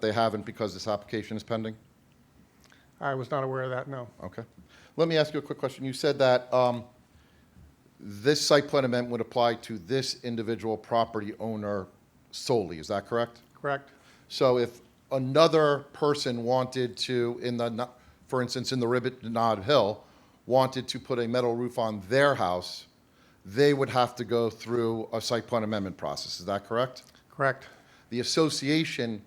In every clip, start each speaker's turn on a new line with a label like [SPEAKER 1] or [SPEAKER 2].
[SPEAKER 1] They haven't because this application is pending?
[SPEAKER 2] I was not aware of that, no.
[SPEAKER 1] Okay. Let me ask you a quick question. You said that um, this site plan amendment would apply to this individual property owner solely, is that correct?
[SPEAKER 2] Correct?
[SPEAKER 1] So if another person wanted to, in the, no- for instance, in the Ribbit Nod Hill, wanted to put a metal roof on their house, they would have to go through a site plan amendment process, is that correct?
[SPEAKER 2] Correct.
[SPEAKER 1] the association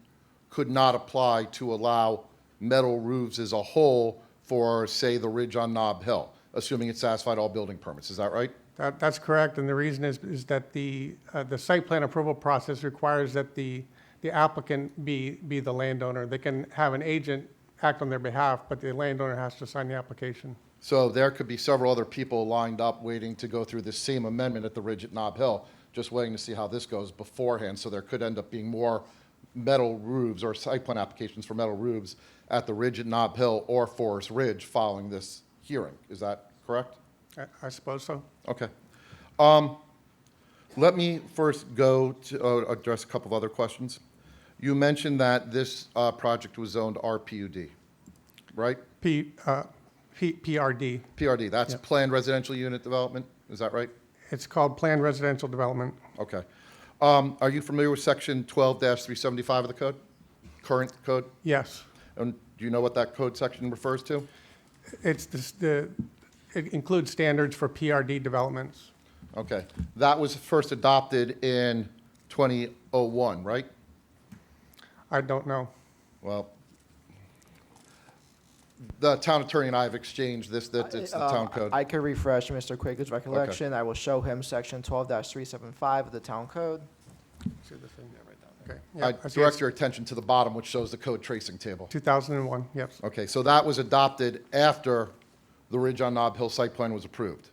[SPEAKER 1] could not apply to allow metal roofs as a whole for, say, the ridge on Nob Hill, assuming it satisfied all building permits. Is that right?
[SPEAKER 2] That, that's correct, and the reason is, is that the, uh, the site plan approval process requires that the, the applicant be, be the landowner. They can have an agent act on their behalf, but the landowner has to sign the application.
[SPEAKER 1] So there could be several other people lined up waiting to go through this same amendment at the ridge at Nob Hill, just waiting to see how this goes beforehand. So there could end up being more metal roofs or site plan applications for metal roofs at the ridge at Nob Hill or Forest Ridge following this hearing. Is that correct?
[SPEAKER 2] I, I suppose so.
[SPEAKER 1] Okay. Um, Let me first go to uh, address a couple of other questions. You mentioned that this uh, project was zoned RPUD, right?
[SPEAKER 2] P, uh, P, PRD.
[SPEAKER 1] PRD, that's Planned Residential Unit Development, is that right?
[SPEAKER 2] It's called Planned Residential Development.
[SPEAKER 1] Okay. Um, Are you familiar with Section 12-375 of the code, current code?
[SPEAKER 2] Yes.
[SPEAKER 1] And do you know what that code section refers to?
[SPEAKER 2] It's this, the, it includes standards for PRD developments.
[SPEAKER 1] Okay. That was first adopted in 2001, right?
[SPEAKER 2] I don't know.
[SPEAKER 1] Well, the town attorney and I have exchanged this, that it's the
[SPEAKER 3] Um,
[SPEAKER 1] town code.
[SPEAKER 3] I could refresh Mr. Quaker's recollection. I will show him section twelve three seven five of the town code.
[SPEAKER 2] See the thing? Okay.
[SPEAKER 1] I
[SPEAKER 2] Yeah, I see
[SPEAKER 1] direct
[SPEAKER 2] it's
[SPEAKER 1] your attention to the bottom, which shows the code tracing table.
[SPEAKER 2] 2001, yes.
[SPEAKER 1] Okay, so that was adopted after the Ridge on Nob Hill site plan was approved.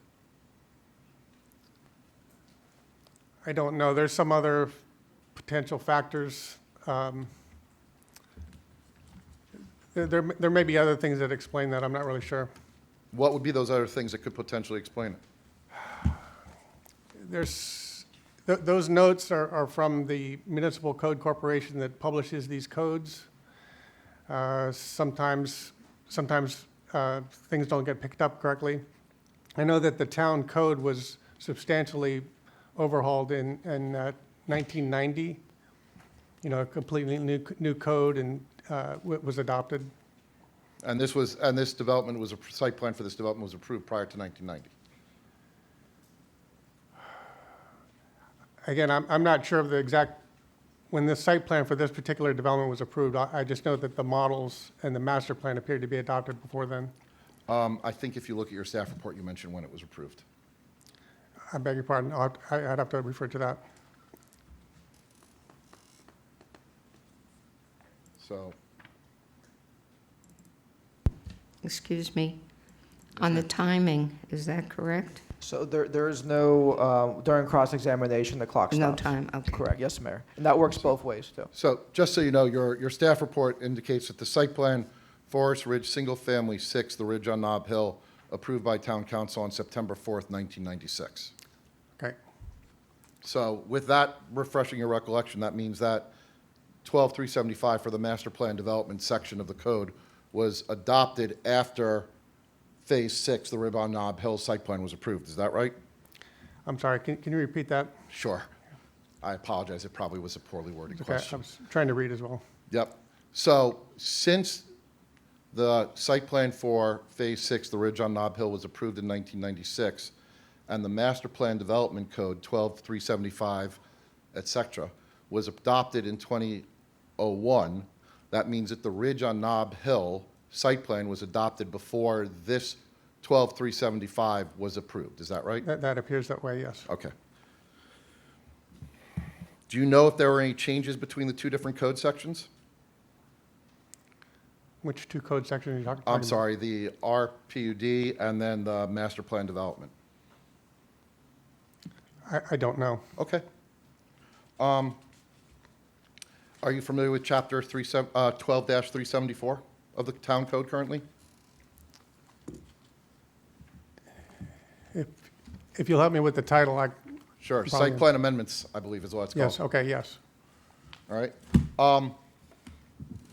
[SPEAKER 2] I don't know. There's some other potential factors. um, There, there there may be other things that explain that. I'm not really sure.
[SPEAKER 1] What would be those other things that could potentially explain it?
[SPEAKER 2] There's, th- those notes are, are from the Municipal Code Corporation that publishes these codes. Uh, Sometimes, sometimes uh, things don't get picked up correctly. I know that the town code was substantially overhauled in, in uh, 1990. You know, a completely new, new code and uh, wa- was adopted.
[SPEAKER 1] And this was, and this development was, a site plan for this development was approved prior to 1990.
[SPEAKER 2] Again, I'm, I'm not sure of the exact, when the site plan for this particular development was approved, I, I just know that the models and the master plan appeared to be adopted before then.
[SPEAKER 1] Um, I think if you look at your staff report, you mentioned when it was approved.
[SPEAKER 2] I beg your pardon, I'll have- I- I'd have to refer to that.
[SPEAKER 1] So,
[SPEAKER 4] Excuse me, on the timing, is that correct?
[SPEAKER 3] So there, there is no, uh, during cross-examination, the clock
[SPEAKER 4] No
[SPEAKER 3] stops.
[SPEAKER 4] time, okay.
[SPEAKER 3] Correct, yes, Mayor. And that works both ways, too.
[SPEAKER 1] So just so you know, your, your staff report indicates that the site plan, Forest Ridge Single Family Six, the Ridge on Nob Hill, approved by town council on September 4th, 1996.
[SPEAKER 2] Okay,
[SPEAKER 1] So with that refreshing your recollection, that means that 12375 for the master plan development section of the code was adopted after Phase Six, the Ridge on Nob Hill site plan was approved. Is that right?
[SPEAKER 2] I'm sorry, can, can you repeat that?
[SPEAKER 1] Sure. I apologize. It probably was a poorly worded
[SPEAKER 2] Okay,
[SPEAKER 1] question.
[SPEAKER 2] I was trying to read as well.
[SPEAKER 1] Yep. So since the site plan for Phase Six, the Ridge on Nob Hill, was approved in 1996, and the Master Plan Development Code 12375, et cetera, was adopted in 2001, that means that the Ridge on Nob Hill site plan was adopted before this 12375 was approved. Is that right?
[SPEAKER 2] That, that appears that way, yes.
[SPEAKER 1] Okay. Do you know if there were any changes between the two different code sections?
[SPEAKER 2] Which two code sections are you talk- talking about?
[SPEAKER 1] I'm sorry, the RPUD and then the master plan development.
[SPEAKER 2] I, I don't know.
[SPEAKER 1] Okay. Um, Are you familiar with Chapter 37 uh, 12-374 of the town code currently?
[SPEAKER 2] If, if you'll help me with the title, I,
[SPEAKER 1] Sure,
[SPEAKER 2] Probably.
[SPEAKER 1] site plan amendments, I believe is what it's called.
[SPEAKER 2] yes, okay, yes.
[SPEAKER 1] All right. Um,